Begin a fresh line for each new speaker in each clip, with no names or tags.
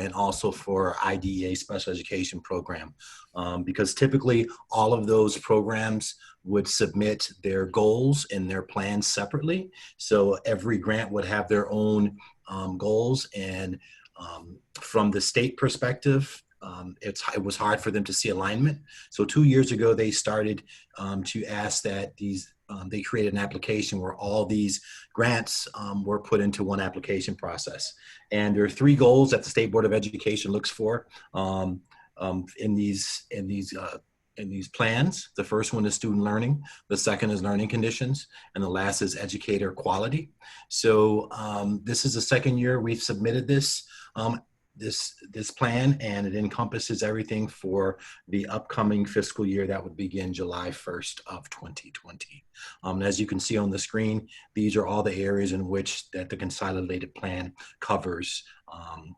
and also for IDEA special education program. Um, because typically all of those programs would submit their goals and their plans separately. So every grant would have their own um, goals. And um, from the state perspective, um, it's, it was hard for them to see alignment. So two years ago, they started um, to ask that these, um, they created an application where all these grants um, were put into one application process. And there are three goals that the State Board of Education looks for um, um, in these, in these, uh, in these plans. The first one is student learning, the second is learning conditions, and the last is educator quality. So um, this is the second year we've submitted this. Um, this this plan and it encompasses everything for the upcoming fiscal year that would begin July 1st of 2020. Um, and as you can see on the screen, these are all the areas in which that the consolidated plan covers um,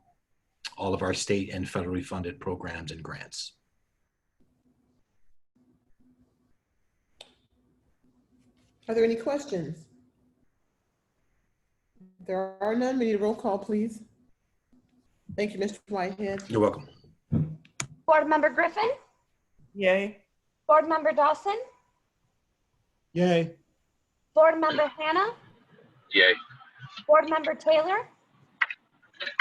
all of our state and federally funded programs and grants.
Are there any questions? There are none. We need a roll call, please. Thank you, Mr. Whitehead.
You're welcome.
Board Member Griffin?
Yay.
Board Member Dawson?
Yay.
Board Member Hannah?
Yay.
Board Member Taylor?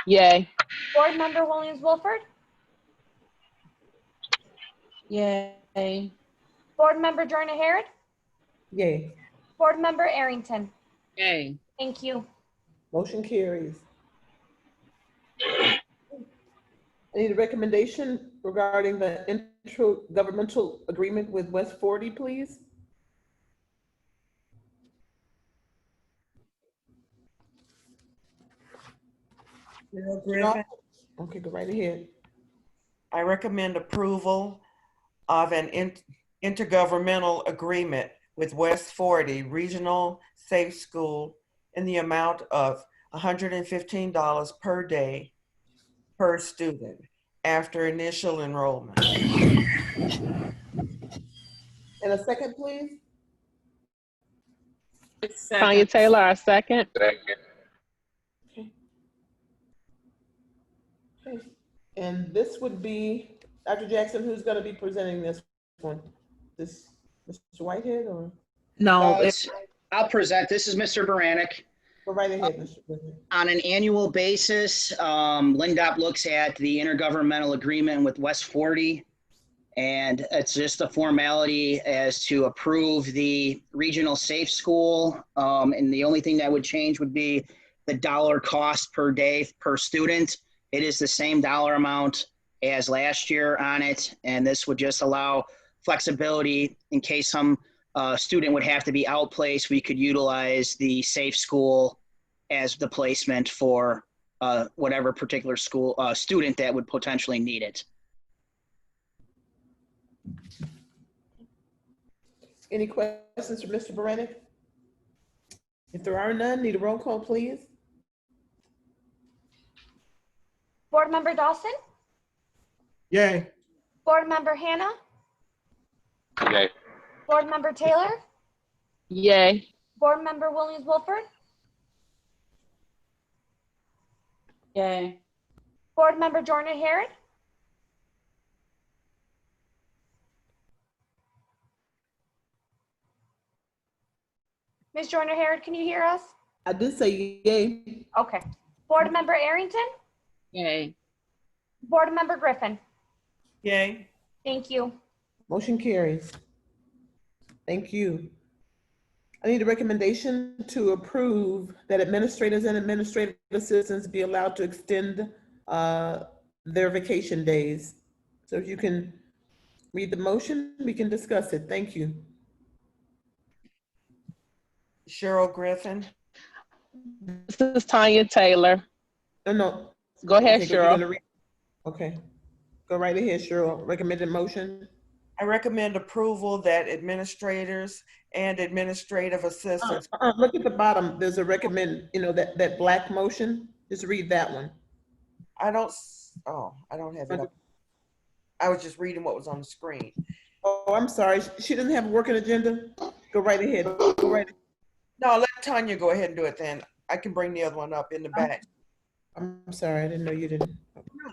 Yay.
Board Member Williams Wilford?
Yay.
Board Member Joyner Harrod?
Yay.
Board Member Arrington?
Yay.
Thank you.
Motion carries. I need a recommendation regarding the intergovernmental agreement with West Forty, please.
Bill Griffin,
Okay, go right ahead.
I recommend approval of an in- intergovernmental agreement with West 40 Regional Safe School in the amount of $115 per day per student after initial enrollment.
And a second, please.
Tanya Taylor, our second.
Second.
Okay. And this would be, Dr. Jackson, who's going to be presenting this one? This, Mr. Whitehead or?
Uh,
No,
it's-
it's
I'll present. This is Mr. Baranik.
Go right ahead, Mr. Whitehead.
On an annual basis, um, Lindop looks at the intergovernmental agreement with West 40. And it's just a formality as to approve the regional safe school. Um, and the only thing that would change would be the dollar cost per day per student. It is the same dollar amount as last year on it. And this would just allow flexibility in case some uh, student would have to be outplaced. We could utilize the safe school as the placement for uh, whatever particular school uh, student that would potentially need it.
Any questions for Mr. Berenik? If there are none, need a roll call, please?
Board Member Dawson?
Yay.
Board Member Hannah?
Yay.
Board Member Taylor?
Yay.
Board Member Williams Wilford?
Yay.
Board Member Joyner Harrod? Ms. Joyner Harrod, can you hear us?
I did say yay.
Okay. Board Member Arrington?
Yay.
Board Member Griffin?
Yay.
Thank you.
Motion carries. Thank you. I need a recommendation to approve that administrators and administrative assistants be allowed to extend uh, their vacation days. So if you can read the motion, we can discuss it. Thank you.
Cheryl Griffin.
This is Tanya Taylor.
No, Oh, no.
Go ahead,
Okay, go- you're
Cheryl.
gonna read- Okay. Go right ahead, Cheryl. Recommended motion?
I recommend approval that administrators and administrative
Uh,
assistants.
uh, Look at the bottom, there's a recommend, you know, that, that black motion, just read that one.
I don't, s- oh, I don't have it up. I was just reading what was on the screen.
Oh, I'm sorry, she doesn't have a working agenda? Go right ahead, go right,
No, let Tanya go ahead and do it then. I can bring the other one up in the back.
I'm sorry, I didn't know you didn't.